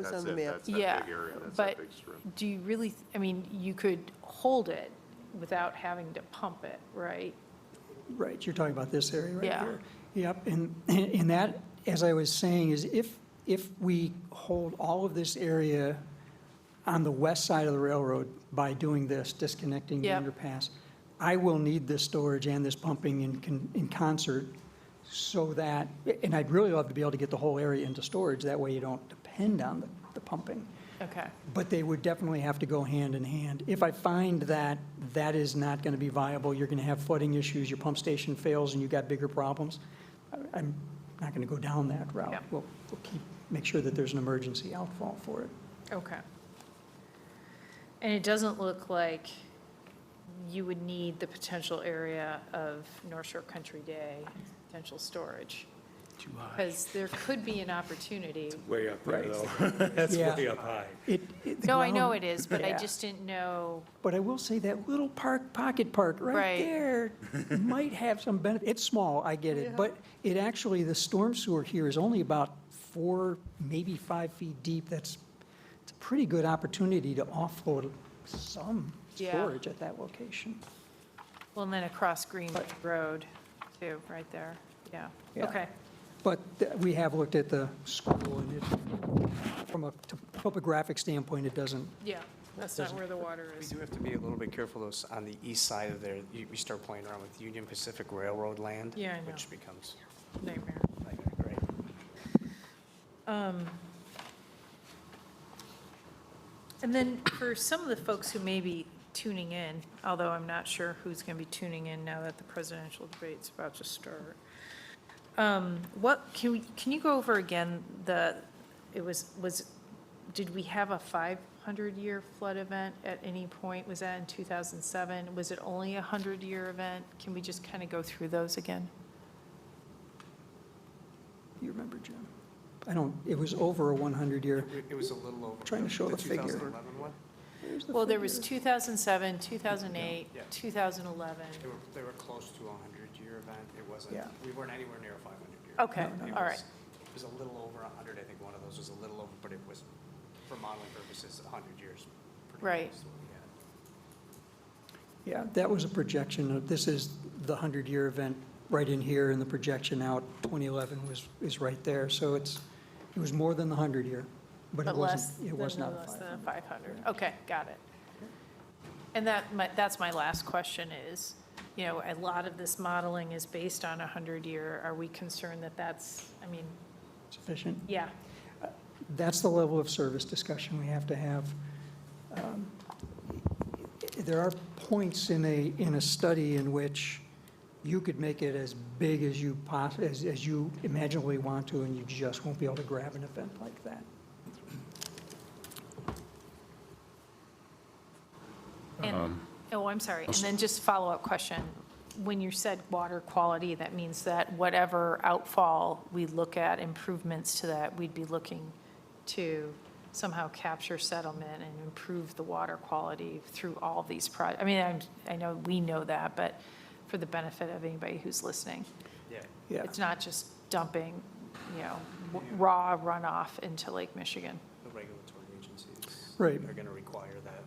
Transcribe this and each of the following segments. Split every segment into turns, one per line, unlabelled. was
That's
on the
it.
map.
That's that
Yeah,
big area. That's that
but
big strip.
do you really, I mean, you could hold it without having to pump it, right?
Right, you're talking about this area right
Yeah.
here. Yep, and, and that, as I was saying, is if, if we hold all of this area on the west side of the railroad by doing this, disconnecting the
Yep.
underpass, I will need this storage and this pumping in, con- in concert so that, and I'd really love to be able to get the whole area into storage, that way you don't depend on the, the pumping.
Okay,
But they would definitely have to go hand in hand. If I find that that is not going to be viable, you're going to have flooding issues, your pump station fails, and you've got bigger problems, I- I'm not going to go down that route.
Yeah.
We'll, we'll keep, make sure that there's an emergency outfall for it.
okay. And it doesn't look like you would need the potential area of North Shore Country Day, potential storage. Too high. Because there could be an opportunity.
Way up there,
Right.
though. That's
Yeah.
way up high.
It- it- the
No, I know
ground-
it is, but I
Yeah.
just didn't know,
But I will say that little park, pocket park right
Right.
there might have some benefit. It's small, I get it, but it actually, the storm sewer here is only about four, maybe five feet deep. That's, it's a pretty good opportunity to offload some
Yeah.
storage at that location.
well, and then across Green Road, too, right there, yeah,
Yeah.
okay.
But th- we have looked at the school and it, from a t- topographic standpoint, it doesn't,
Yeah, that's not where the water
We
is.
do have to be a little bit careful though, s- on the east side of there, you, we start playing around with Union Pacific Railroad land.
Yeah, I know.
Which becomes,
Nightmare.
like, right,
Um, And then for some of the folks who may be tuning in, although I'm not sure who's going to be tuning in now that the presidential debate's about to start. um, What, can we, can you go over again the, it was, was, did we have a 500-year flood event at any point? Was that in 2007? Was it only a 100-year event? Can we just kind of go through those again?
you remember, Jim? I don't, it was over a 100-year.
it it was a little over.
Trying to show the figure.
2011 one,
Well, there was 2007, 2008,
Yeah.
2011.
they were, they were close to a hundred year event, it wasn't,
Yeah.
we weren't anywhere near a five hundred year.
Okay,
event. It
all
was-
right.
It was a little over a hundred, I think one of those was a little over, but it was, for modeling purposes, a hundred years. pretty
Right.
close to what we had.
Yeah, that was a projection of, this is the 100-year event right in here, and the projection out 2011 was, is right there. So it's, it was more than the 100-year, but it
But less,
wasn't, it was
than-
not
less than
500.
500. Okay, got it. And that, my- that's my last question is, you know, a lot of this modeling is based on a 100-year. Are we concerned that that's, I mean,
Sufficient.
yeah,
That's the level of service discussion we have to have. Um, There are points in a, in a study in which you could make it as big as you poss, as, as you imaginably want to, and you just won't be able to grab an event like that.
And, oh, I'm sorry. And then just follow-up question. When you said water quality, that means that whatever outfall we look at, improvements to that, we'd be looking to somehow capture settlement and improve the water quality through all these projects. I mean, I'm, I know we know that, but for the benefit of anybody who's listening.
Yeah.
Yeah.
It's not just dumping, you know, raw runoff into Lake Michigan.
The regulatory agencies.
Right.
Are gonna require that.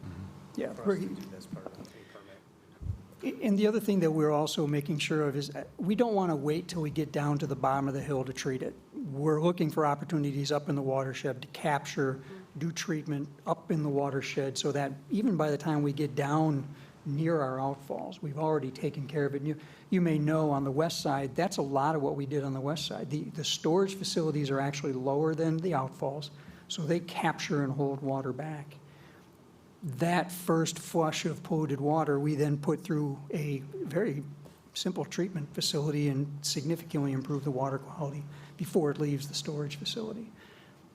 Yeah,
For us to
reg-
do that as part of the permit.
And the other thing that we're also making sure of is, uh, we don't want to wait till we get down to the bottom of the hill to treat it. We're looking for opportunities up in the watershed to capture, do treatment up in the watershed, so that even by the time we get down near our outfalls, we've already taken care of it. And You, you may know on the west side, that's a lot of what we did on the west side. The, the storage facilities are actually lower than the outfalls, so they capture and hold water back that first flush of polluted water, we then put through a very simple treatment facility and significantly improve the water quality before it leaves the storage facility.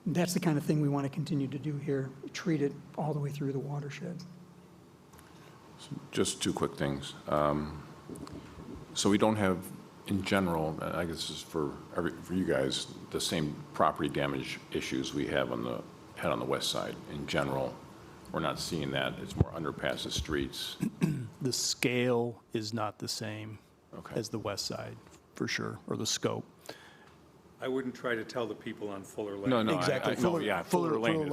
That's the kind of thing we want to continue to do here, treat it all the way through the watershed.
Just two quick things. Um, So we don't have, in general, I guess this is for every, for you guys, the same property damage issues we have on the, had on the west side. In general, we're not seeing that. It's more underpasses, streets.
the scale is not the same
Okay.
as the west side, for sure, or the scope.
I wouldn't try to tell the people on Fuller Lane.
No, no, I- I,
Exactly.
no,
Fuller-
yeah,
Fuller-
Fuller Lane
Fuller
is